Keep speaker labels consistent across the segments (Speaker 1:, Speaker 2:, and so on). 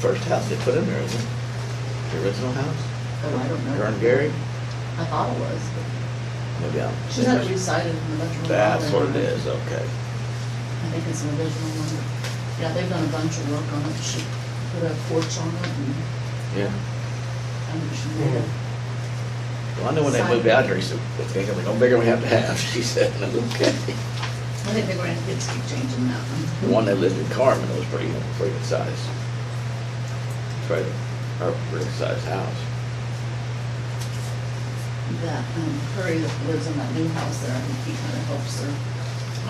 Speaker 1: first house they put in there, isn't it? The original house,
Speaker 2: Oh, I don't know.
Speaker 1: Vern Gary,
Speaker 2: I thought it was.
Speaker 1: maybe I'm.
Speaker 2: She's had it recited in the original.
Speaker 1: That's what it is, okay.
Speaker 2: I think it's an original one. Yeah, they've done a bunch of work on it. She put a porch on it and,
Speaker 1: Yeah.
Speaker 2: and she made it.
Speaker 1: Well, I know when they moved out here, he said, "What the heck, how big are we have to have?" She said, "And I said, okay.
Speaker 2: I think they're gonna have to keep changing that
Speaker 1: The one
Speaker 2: one.
Speaker 1: that lived in Carmen was pretty, pretty good size. Trailer, or pretty good sized house.
Speaker 2: That, um, Curry that lives in that new house there, I think he kinda helps her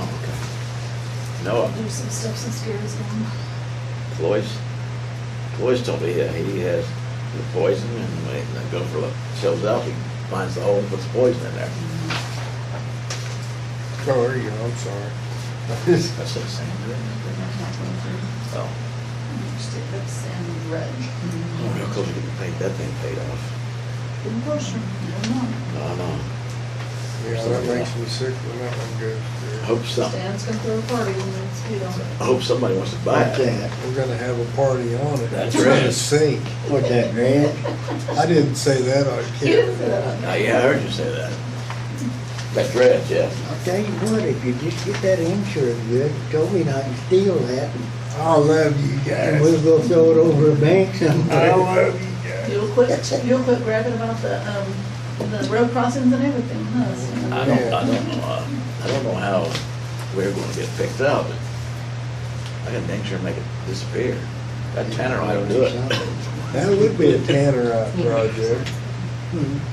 Speaker 1: Oh, okay. Noah,
Speaker 2: do some stuff since Gary's gone.
Speaker 1: Cloyce, Cloyce told me that he has the poison and when they go for a shows up, he finds the hole and puts the poison in there.
Speaker 2: Mhm.
Speaker 3: Oh, there you go, I'm sorry.
Speaker 1: That's what Sandra.
Speaker 2: Mm-hmm.
Speaker 1: Oh,
Speaker 2: Just it looks and red.
Speaker 1: oh, real close to getting paid, that thing paid off.
Speaker 2: Good portion, I don't
Speaker 1: No,
Speaker 2: know.
Speaker 1: no,
Speaker 3: Yeah, that makes me sick when that one
Speaker 1: I
Speaker 3: goes through.
Speaker 1: hope some,
Speaker 2: Stan's gonna throw a party when it's, you know.
Speaker 1: I hope somebody wants to buy it.
Speaker 3: We're gonna have a party on it.
Speaker 1: That's
Speaker 3: It's gonna
Speaker 1: right.
Speaker 3: sink.
Speaker 4: What's that, red?
Speaker 3: I didn't say that, I
Speaker 2: You
Speaker 3: can't.
Speaker 2: didn't say that.
Speaker 1: Now, yeah, I heard you say that. That red, yeah.
Speaker 4: I'll tell you what, if you just get that insurance good, you told me not to steal that,
Speaker 3: I love you
Speaker 4: and we'll
Speaker 3: guys.
Speaker 4: go throw it over a bank
Speaker 3: I
Speaker 4: sometime.
Speaker 3: love you guys.
Speaker 2: You'll quit, you'll quit grabbing about the, um, the road crossings and everything, huh? So-
Speaker 1: I don't, I don't know, uh, I don't know how we're gonna get picked up. I can dang sure make it disappear. That Tanner I don't do it.
Speaker 3: That would be a Tannerite project.
Speaker 4: Hmm.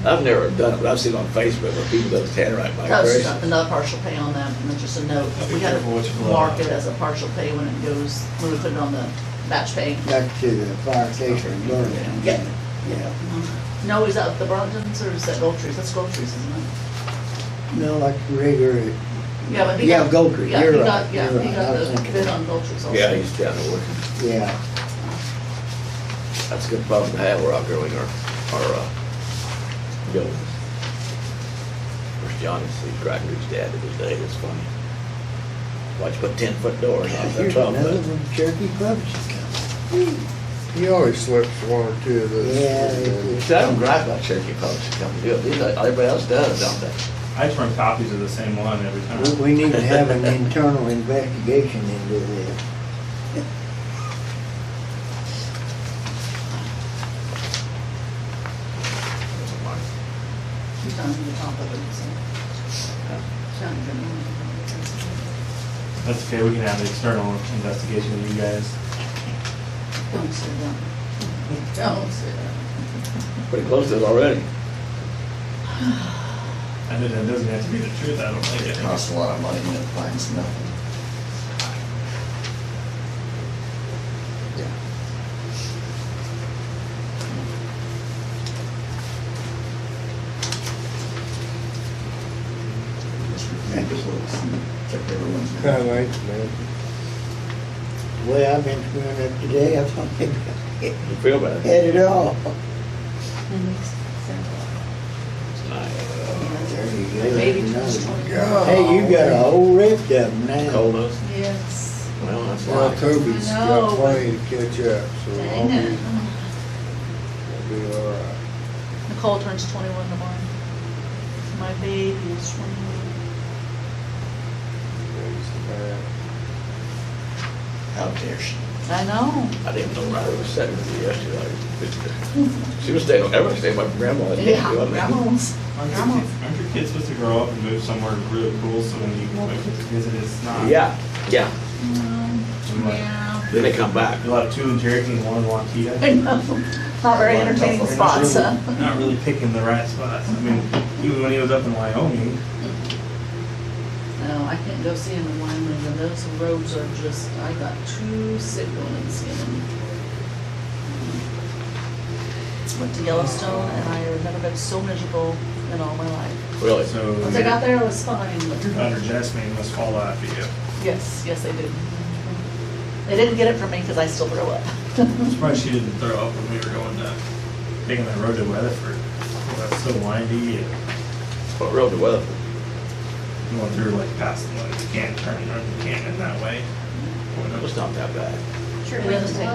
Speaker 1: I've never done it, but I've seen on Facebook where people does Tannerite
Speaker 2: That was just
Speaker 1: migration.
Speaker 2: another partial pay on that, and then just a note.
Speaker 5: Be
Speaker 2: We had
Speaker 5: careful what you
Speaker 2: to
Speaker 5: pull
Speaker 2: mark
Speaker 5: out.
Speaker 2: it as a partial pay when it goes, when we put it on the batch pay.
Speaker 4: Back to the fire station in Burlington.
Speaker 2: Yeah.
Speaker 4: Yeah.
Speaker 2: Mm-hmm. No, is that the Brontons or is that Goltries? That's Goltries, isn't it?
Speaker 4: No, like regular,
Speaker 2: Yeah, but he
Speaker 4: Yeah,
Speaker 2: got.
Speaker 4: Goltries,
Speaker 2: yeah,
Speaker 4: you're
Speaker 2: he got-
Speaker 4: right,
Speaker 2: Yeah,
Speaker 4: you're
Speaker 2: he
Speaker 4: right,
Speaker 2: got
Speaker 4: I was
Speaker 2: the
Speaker 4: thinking
Speaker 2: bid
Speaker 4: that.
Speaker 2: on Goltries also.
Speaker 1: Yeah, he's down there working.
Speaker 4: yeah.
Speaker 1: That's a good problem to have, we're outgrowing our, our, uh, buildings. Where's Johnny, see, Crackers dad the other day, it's funny. Why'd you put ten foot doors on the
Speaker 4: Here's
Speaker 1: top
Speaker 4: another
Speaker 1: of it?
Speaker 4: one, Cherokee Club's coming.
Speaker 3: He always slips one or two of those.
Speaker 4: Yeah, they do.
Speaker 1: See, I don't gripe about Cherokee Public Company, do it, These are- everybody else does, don't they?
Speaker 5: I turn copies of the same one every
Speaker 4: We-
Speaker 5: time.
Speaker 4: We need to have an internal investigation into this.
Speaker 2: He's down to the top of it, so. He's down to the-
Speaker 5: That's okay, we can have an external investigation of you guys.
Speaker 2: Don't say that. Don't say that.
Speaker 1: Pretty close to it already.
Speaker 5: And then it doesn't have to be the truth, I don't like
Speaker 6: It
Speaker 5: it.
Speaker 6: costs a lot of money and it finds nothing. Just ridiculous and kept everyone's.
Speaker 3: Kinda like, man.
Speaker 4: The way I've been screwing up today, I thought maybe I
Speaker 1: You feel bad?
Speaker 4: had it all.
Speaker 1: It's nice.
Speaker 4: There you go.
Speaker 2: Maybe
Speaker 4: Another
Speaker 2: just
Speaker 4: one.
Speaker 2: twenty.
Speaker 3: God.
Speaker 4: Hey, you got a whole ripped of them now.
Speaker 1: Cold us?
Speaker 2: Yes.
Speaker 1: Well, that's
Speaker 3: Well,
Speaker 1: life.
Speaker 3: Toby's
Speaker 2: I
Speaker 3: got
Speaker 2: know,
Speaker 3: plenty to catch up, so I'll
Speaker 2: Dang
Speaker 3: be,
Speaker 2: it.
Speaker 3: I'll be all right.
Speaker 2: Nicole turns twenty-one tomorrow. My baby is twenty-one.
Speaker 3: Praise the Lord.
Speaker 1: How dare she?
Speaker 2: I know.
Speaker 1: I didn't know Riley was sitting with you yesterday. She was staying, everyone stayed with my grandma. and
Speaker 2: Yeah,
Speaker 1: doing that.
Speaker 2: grandma's,
Speaker 5: Aren't your
Speaker 2: grandma.
Speaker 5: kids- aren't your kids supposed to grow up and move somewhere really cool so when you want to visit, it's not?
Speaker 1: Yeah, yeah.
Speaker 2: Mm, Yeah.
Speaker 1: Then they come back.
Speaker 5: You'll have two in Cherokee and one in Waukeeta.
Speaker 2: I know. Not very entertaining
Speaker 5: You're not
Speaker 2: spots,
Speaker 5: really-
Speaker 2: huh?
Speaker 5: Not really picking the right spots. I mean, even when he was up in Wyoming,
Speaker 2: No, I can't go see him in Wyoming, and those roads are just, I got too sick going and seeing him. Went to Yellowstone, and I have never been so miserable in all my life.
Speaker 1: Really?
Speaker 5: so.
Speaker 2: Once I got there, I was fine, but.
Speaker 5: Your daughter Jasmine must fall after you.
Speaker 2: Yes, yes, they did. They didn't get it from me because I still throw up.
Speaker 5: I'm surprised she didn't throw up when we were going to, taking that road to Weatherford. Oh, That's so windy and
Speaker 1: What road to weather?
Speaker 5: going through like past the, you can't turn around, you can't in that way. Going up
Speaker 1: It was not that bad.
Speaker 2: Sure. We have to take